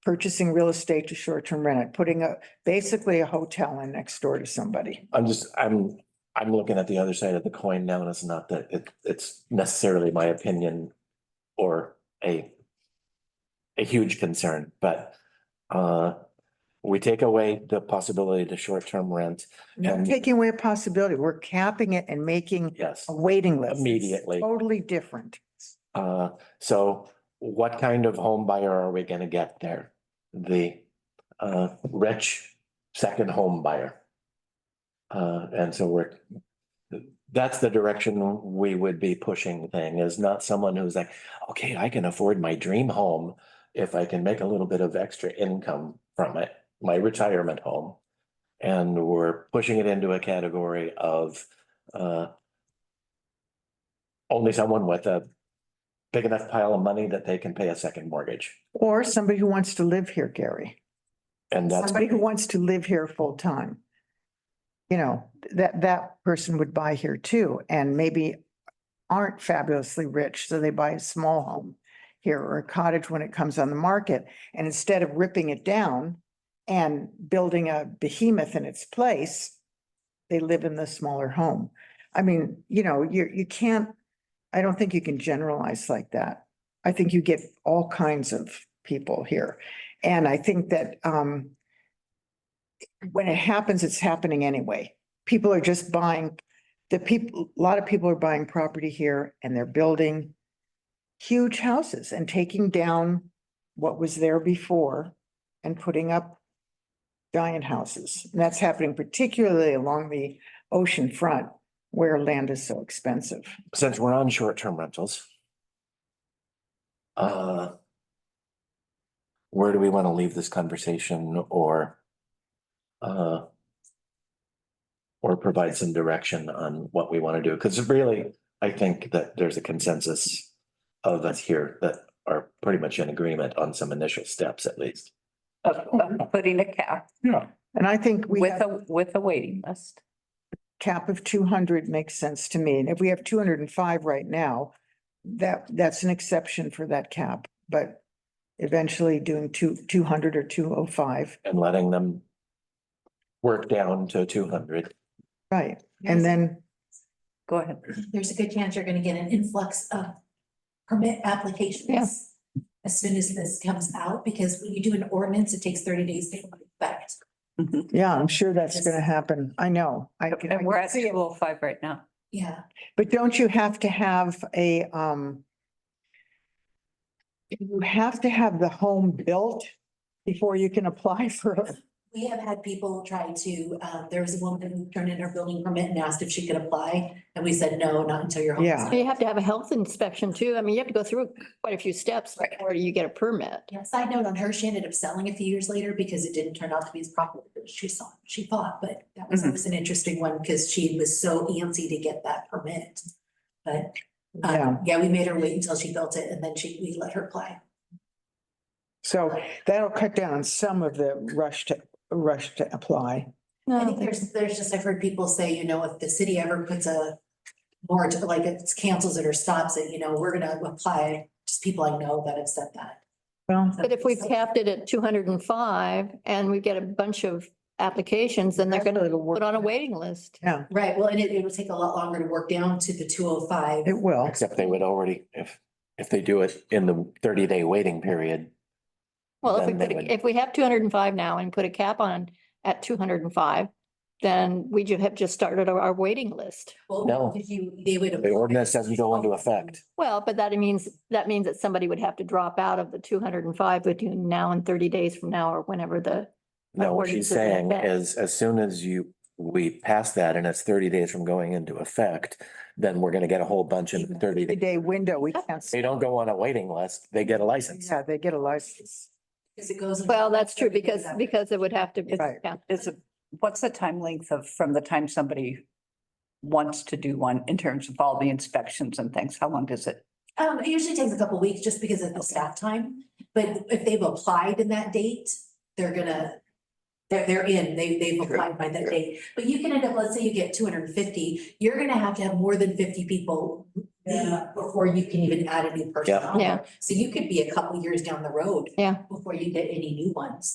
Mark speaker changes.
Speaker 1: purchasing real estate to short-term rent it, putting a, basically a hotel in next door to somebody.
Speaker 2: I'm just, I'm, I'm looking at the other side of the coin now, and it's not that it, it's necessarily my opinion or a a huge concern, but uh, we take away the possibility to short-term rent,
Speaker 1: Not
Speaker 2: And-
Speaker 1: Taking away a possibility, we're capping it and making
Speaker 2: yes.
Speaker 1: a waiting list.
Speaker 2: Immediately.
Speaker 1: Totally different.
Speaker 2: Uh, so what kind of home buyer are we gonna get there? The uh, rich second home buyer. Uh, and so we're, that's the direction we would be pushing thing is not someone who's like, okay, I can afford my dream home if I can make a little bit of extra income from it, my retirement home. And we're pushing it into a category of uh, only someone with a big enough pile of money that they can pay a second mortgage.
Speaker 1: Or somebody who wants to live here, Gary.
Speaker 2: And that's,
Speaker 1: Somebody who wants to live here full-time. You know, that, that person would buy here too, and maybe aren't fabulously rich, so they buy a small home here or a cottage when it comes on the market. And instead of ripping it down and building a behemoth in its place, they live in the smaller home. I mean, you know, you, you can't, I don't think you can generalize like that. I think you get all kinds of people here. And I think that, um, when it happens, it's happening anyway. People are just buying, the people, a lot of people are buying property here and they're building huge houses and taking down what was there before and putting up giant houses. And that's happening particularly along the ocean front where land is so expensive.
Speaker 2: since we're on short-term rentals. Uh. Where do we want to leave this conversation or? Uh. Or provide some direction on what we want to do, because really, I think that there's a consensus of us here that are pretty much in agreement on some initial steps at least.
Speaker 3: of, of putting a cap
Speaker 1: And I think Mm-hmm. we have-
Speaker 3: with a, with a waiting list.
Speaker 1: cap of two hundred makes sense to me. And if we have two hundred and five right now, that, that's an exception for that cap, but eventually doing two, two hundred or two oh five,
Speaker 2: and letting them work down to two hundred.
Speaker 1: right? And then,
Speaker 3: Go ahead.
Speaker 4: there's a good chance you're gonna get an influx of permit applications. As soon as this comes out, because when you do an ordinance, it takes thirty days to come into effect.
Speaker 1: yeah, I'm sure that's gonna happen. I know. I can- I
Speaker 3: And we're
Speaker 1: can
Speaker 3: at
Speaker 1: see
Speaker 3: two
Speaker 1: it.
Speaker 3: oh five right now.
Speaker 4: Yeah,
Speaker 1: But don't you have to have a, um, you have to have the home built before you can apply for it?
Speaker 4: we have had people try to, uh, there was a woman who turned in her building permit and asked if she could apply, and we said, no, not until your home. is
Speaker 1: Yeah.
Speaker 5: So You have to have a health inspection too. I mean, you have to go through quite a few steps before you get a permit.
Speaker 4: Yeah, side note on her, she ended up selling a few years later because it didn't turn out to be as popular as she saw, she thought, but that was
Speaker 3: Mhm.
Speaker 4: always an interesting one because she was so antsy to get that permit. But,
Speaker 1: Yeah.
Speaker 4: um, yeah, we made her wait until she built it and then she, we let her apply.
Speaker 1: So that'll cut down on some of the rush to, rush to apply.
Speaker 4: I think there's, there's just, I've heard people say, you know, if the city ever puts a more to, like, it cancels it or stops it, you know, we're gonna apply, just people I know that have said that.
Speaker 1: Well,
Speaker 5: But if we capped it at two hundred and five and we get a bunch of applications, then they're gonna put on a waiting list.
Speaker 1: yeah,
Speaker 4: Right, well, and it, it would take a lot longer to work down to the two oh five.
Speaker 1: it will.
Speaker 2: Except they would already, if, if they do it in the thirty day waiting period,
Speaker 5: Well, if we
Speaker 2: Then they
Speaker 5: put,
Speaker 2: would-
Speaker 5: a- if we have two hundred and five now and put a cap on at two hundred and five, then we ju- have just started our, our waiting list.
Speaker 4: Well,
Speaker 2: No.
Speaker 4: If you, they would.
Speaker 2: the ordinance doesn't go into effect.
Speaker 5: Well, but that means, that means that somebody would have to drop out of the two hundred and five between now and thirty days from now or whenever the
Speaker 2: No, what
Speaker 5: According
Speaker 2: she's
Speaker 5: to the
Speaker 2: saying
Speaker 5: effect.
Speaker 2: is as soon as you, we pass that and it's thirty days from going into effect, then we're gonna get a whole bunch in thirty
Speaker 1: The
Speaker 2: days.
Speaker 1: day window, we can't.
Speaker 2: They don't go on a waiting list, they get a license.
Speaker 1: Yeah, they get a license.
Speaker 4: Because it goes.
Speaker 5: Well, that's true
Speaker 4: Everything
Speaker 5: because,
Speaker 4: is up.
Speaker 5: because it would have to,
Speaker 1: Right.
Speaker 5: yeah.
Speaker 3: Is it, what's the time length of, from the time somebody wants to do one in terms of all the inspections and things? How long does it?
Speaker 4: Um, it usually takes a couple weeks just because of the staff time, but if they've applied in that date, they're gonna, They're, they're in, they, they've applied by that date, but you can end up, let's say you get two hundred and fifty, you're gonna have to have more than fifty people leave before you can even add a new person
Speaker 2: Yeah.
Speaker 4: on
Speaker 5: Yeah.
Speaker 4: there. So you could be a couple years down the road.
Speaker 5: Yeah.
Speaker 4: Before you get any new ones.